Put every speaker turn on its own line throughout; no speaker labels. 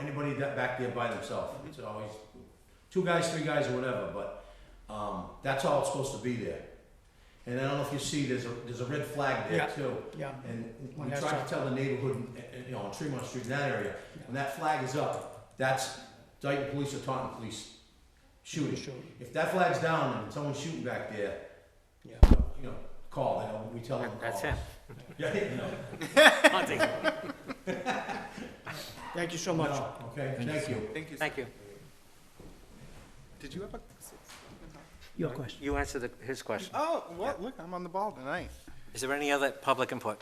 anybody that back there by themselves. It's always two guys, three guys, or whatever, but, um, that's all it's supposed to be there. And I don't know if you see, there's a, there's a red flag there
Yeah.
too.
Yeah,
And
When
we
that's
tried
up.
to tell the neighborhood, uh, uh, you know, on Tremont Street in that area, when that flag is up, that's Dayton Police or Taunton Police shooting.
Sure.
If that flag's down and someone's shooting back there,
Yeah.
you know, call, you know, we tell them. to
That's
call.
him.
Yeah, you know.
Hunting.
Thank you so much.
No, Okay, thank you.
Thank you. sir.
Thank you.
Did you have a?
Your question.
You answered the- his question.
Oh, well, look, I'm on the ball tonight.
Is there any other public input?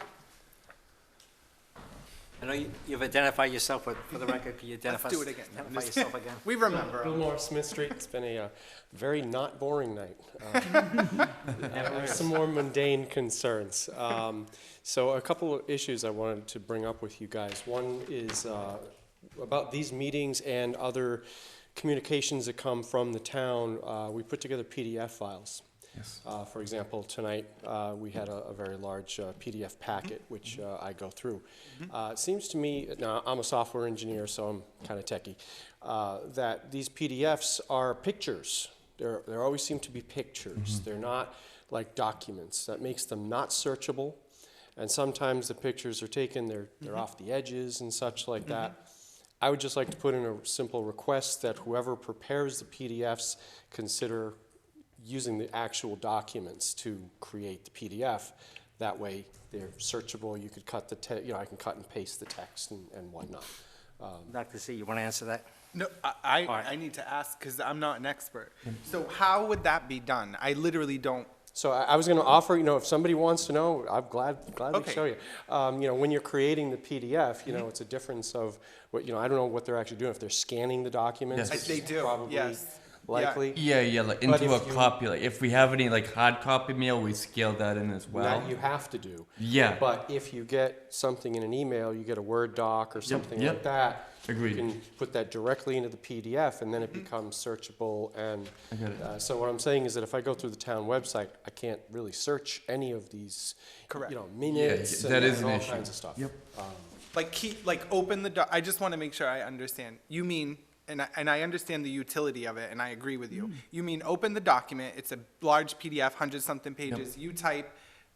I know you- you've identified yourself, but for the record, can you identify?
do it again.
Identify yourself again.
We remember.
Fillmore Smith Street. It's been a uh, very not boring night. Uh, uh, some more mundane concerns. Um, so, a couple of issues I wanted to bring up with you guys. One is uh, about these meetings and other communications that come from the town. Uh, we put together PDF files. Uh, For example, tonight, uh, we had a a very large uh, PDF packet, which uh, I go through. Uh, It seems to me, now, I'm a software engineer, so I'm kind of techie, uh, that these PDFs are pictures. There there always seem to be pictures. They're not like documents. That makes them not searchable, and sometimes the pictures are taken, they're they're off the edges and such like that. I would just like to put in a simple request that whoever prepares the PDFs consider using the actual documents to create the PDF. That way, they're searchable, you could cut the, te- you know, I can cut and paste the text and and whatnot.
Dr. Z, you want to answer that?
No, I, I,
right.
I need to ask because I'm not an expert. So how would that be done? I literally don't.
So I, I was going to offer, you know, if somebody wants to know, I'm glad gladly
Okay.
show you. Um, you know, when you're creating the PDF, you know, it's a difference of what you know. I don't know what they're actually doing. If they're scanning the documents,
Yes.
which
They
is
do,
probably
yes. Yeah.
likely.
Yeah, yeah, like
But
into a
if you-
copy. Like if we have any like hard copy mail, we scale that in as well.
That you have to do.
Yeah.
But if you get something in an email, you get a Word doc or something like
yep.
that.
Agreed.
You can put that directly into the PDF and then it becomes searchable and.
I got it.
uh, So what I'm saying is that if I go through the town website, I can't really search any of these.
Correct.
You know, minutes
that
and
is
and
an
all
issue.
kinds of stuff.
Yep.
Like keep, like open the doc, I just want to make sure I understand. You mean, and I, and I understand the utility of it and I agree with
Mm.
you. You mean open the document, it's a large PDF, hundred something pages, you type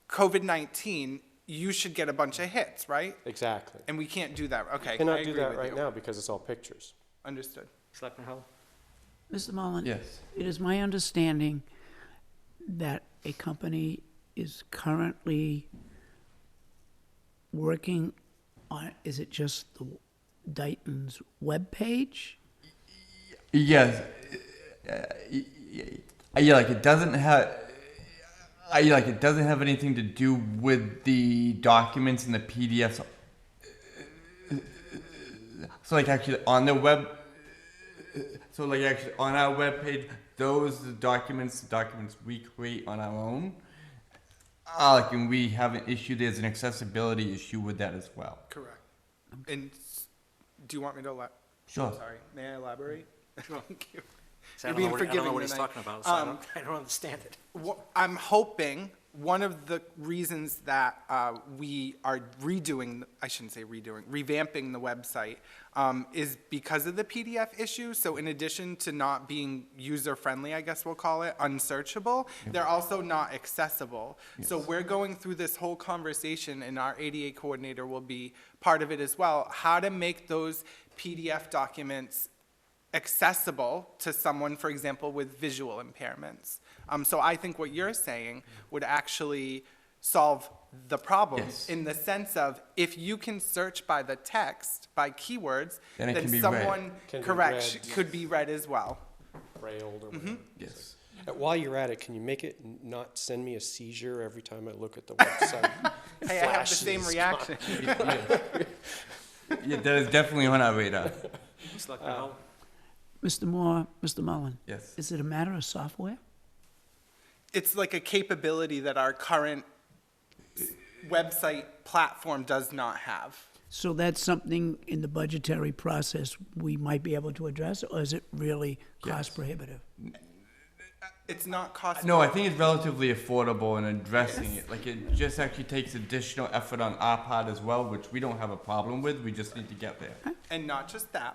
COVID-19, you should get a bunch of hits, right?
Exactly.
And we can't do that, okay. I
Cannot do
agree
that
with
right
you.
now because it's all pictures.
Understood.
Selectman Hull?
Mr. Mullin?
Yes.
It is my understanding that a company is currently working on, is it just the Dayton's webpage?
Yes. Uh, yeah, like it doesn't have. I like it doesn't have anything to do with the documents and the PDFs. So like actually on the web. So like actually on our webpage, those are the documents, the documents we create on our own. Uh, like and we have an issue. There's an accessibility issue with that as well.
Correct. And s- do you want me to elab-
Sure.
Sorry, may I elaborate? Thank you.
So I
You're
don't know
being
what- I don't know
forgiving
what he's
tonight.
talking about, so I
Um,
don't, I don't understand it.
Wha- I'm hoping one of the reasons that uh, we are redoing, I shouldn't say redoing, revamping the website um, is because of the PDF issue. So in addition to not being user-friendly, I guess we'll call it, unsearchable, they're also not accessible. So we're going through this whole conversation, and our ADA coordinator will be part of it as well, how to make those PDF documents accessible to someone, for example, with visual impairments. Um, so I think what you're saying would actually solve the problem
Yes.
in the sense of if you can search by the text, by keywords,
Then it can be read.
someone
Can be
correct
read,
sh- could be read as well.
Braille
Mm-hmm.
or whatever.
Yes.
Uh, While you're at it, can you make it n- not send me a seizure every time I look at the website?
Hey, I have the
Flashes.
same reaction.
Yeah, that is definitely on our radar.
Selectman Hull?
Mr. Moore, Mr. Mullin?
Yes.
Is it a matter of software?
it's like a capability that our current s- website platform does not have.
So that's something in the budgetary process we might be able to address, or is it really cost prohibitive?
It's not cost.
No, I think it's relatively affordable in addressing it. Like it just actually takes additional effort on our part as well, which we don't have a problem with. We just need to get there.
And not just that,